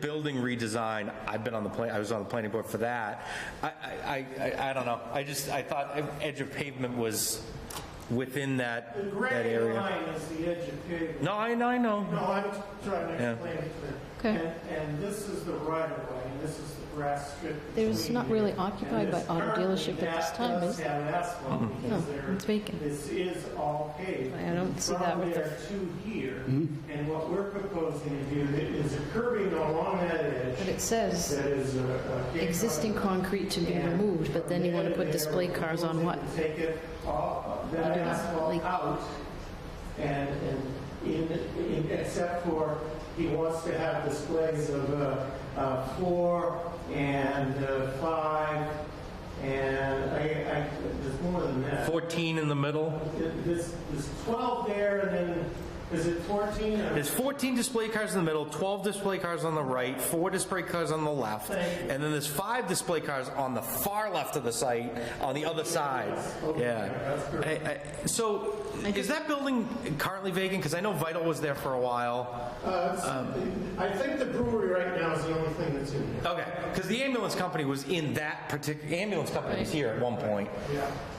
building redesign, I've been on the plan, I was on the planning board for that. I, I, I, I don't know, I just, I thought edge of pavement was within that, The that gray area. line is the edge of pavement. No, I, I know, No, I'm trying to Yeah. explain it to Okay. them. And, and this is the right of way, and this is the grass strip. There's between not really here. occupied And by this auto currently dealership at this that time, does is it? Oh, have asphalt because No, there- it's vacant. This is all paved. I don't see that with the- From there to here, and what we're proposing to do is a curbing along that But edge it says that is a. a- existing concrete to be removed, but then you want to put display cars on what? Take it off, You that do not asphalt like- out, and, and in, in, except for, he wants to have displays of, uh, uh, four and, uh, five, and I, I, there's more than that. 14 in the middle. There's, there's twelve there, and then, is it fourteen? or- There's 14 display cars in the middle, 12 display cars on the right, four display cars on the left, and then there's five display cars on the far left of the site, on the other side. Yeah. I- I- So is that building currently vacant? Because I know Vital was there for a while. Uh, it's- I think the brewery right now is the only thing that's in there. Okay, because the ambulance company was in that particular, ambulance company was here at one point.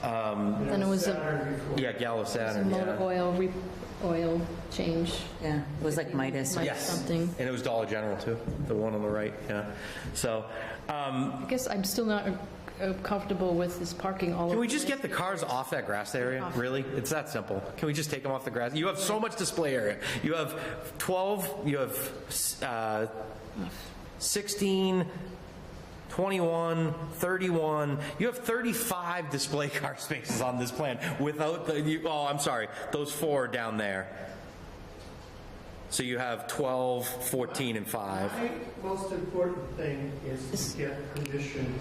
Then it was a Saturday before. Yeah, Gallo Saturn, motor yeah. oil, re- oil change, Yeah, it was like Midas. like Yes. something. And it was Dollar General too, the one on the right, yeah. So, um, I guess I'm still not uh, comfortable with this parking all Can over. we just get the cars off that grass area? Really? It's that simple. Can we just take them off the grass? You have so much display area. You have 12, you have uh, 16, 21, 31. You have 35 display car spaces on this plan without the, you, oh, I'm sorry, those four are down there. So you have 12, 14, and 5. My most important thing is to get permission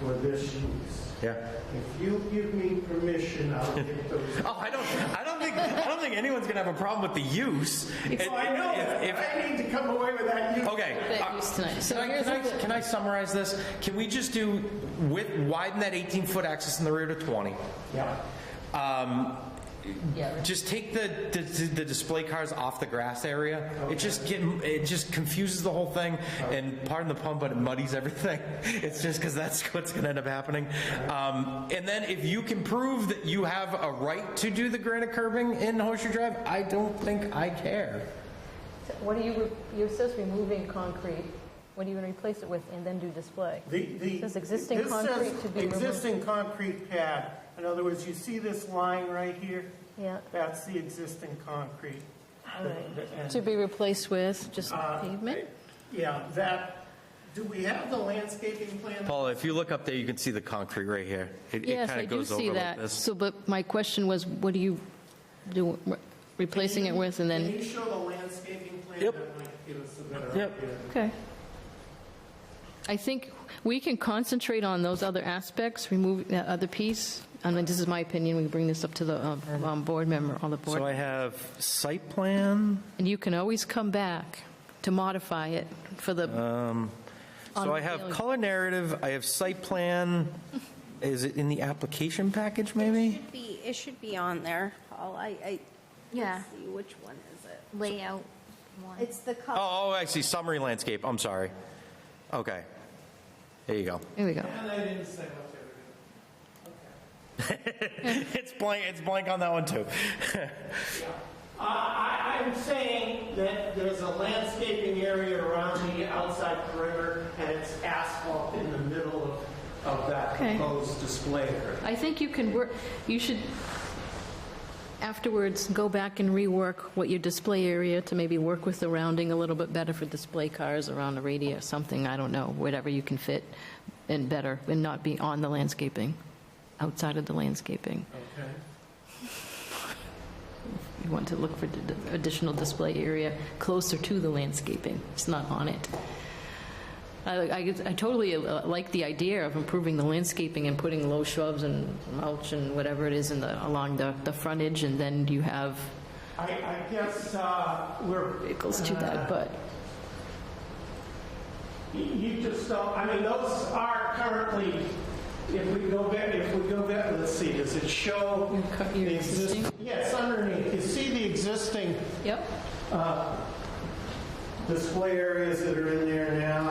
for this use. Yeah. If you give me permission, I'll get those. Oh, I don't, I don't think, I don't think anyone's gonna have a problem with the use. Oh, I know, If- if- I need to come away with that use. Okay. That uh, use tonight. So Can I, here's can I, what the- can I summarize this? Can we just do, with, widen that 18-foot access in the rear to 20? Yeah. Yeah. Just take the, the, the display cars off the grass area? It just get, it just confuses the whole thing, and pardon the pun, but it muddies everything. It's just because that's what's gonna end up happening. Um, and then if you can prove that you have a right to do the granite curbing in Horseshoe Drive, I don't think I care. What do you, you says removing concrete, what are you going to replace it with and then do display? The, the. Says existing this says concrete to be removed. Existing concrete pad. In other words, you see this line right here? Yeah, That's the existing concrete. all right. And- To be replaced with just Uh, pavement? Yeah, that, do we have the landscaping plan? Paula, if you look up there, you can see the concrete right here. It- It Yes, kind I of do goes over see like that. this. So, but my question was, what do you do, replacing it with and Can then? you show the landscaping plan? Yep. That might give us a better Yep. idea. Okay. I think we can concentrate on those other aspects, remove that other piece. I mean, this is my opinion, we bring this up to the uh, um, board member, on the So board. I have site plan, And you can always come back to modify it for Uh, the, so On I have the- color narrative, I have site plan, is it in the application package maybe? Should be, it should be on there, Paul. I, I. Yeah. let's See, which one is it? layout one. It's the color. Oh, oh, I see, summary landscape, I'm sorry. Okay, there you go. there we go. And I didn't say what they were doing. It's blank, it's blank on that one too. Uh, I, I'm saying that there's a landscaping area around the outside perimeter, and it's asphalt in the middle of, of that Okay. proposed display area. I think you can work, you should afterwards go back and rework what your display area to maybe work with the rounding a little bit better for display cars around the radius, something, I don't know, whatever you can fit and better, and not be on the landscaping, outside of the landscaping. Okay. You want to look for d- additional display area closer to the landscaping, it's not on it. I, I I totally uh, like the idea of improving the landscaping and putting low shrubs and mulch and whatever it is in the, along the, the frontage, and then you have I, I guess, uh, we're, uh, vehicles to that, but you- you just don't, I mean, those are currently, if we go back, if we go back, let's see, does it show? Your cu- your the exist- existing? Yes, underneath, you see the existing Yep. display areas that are in there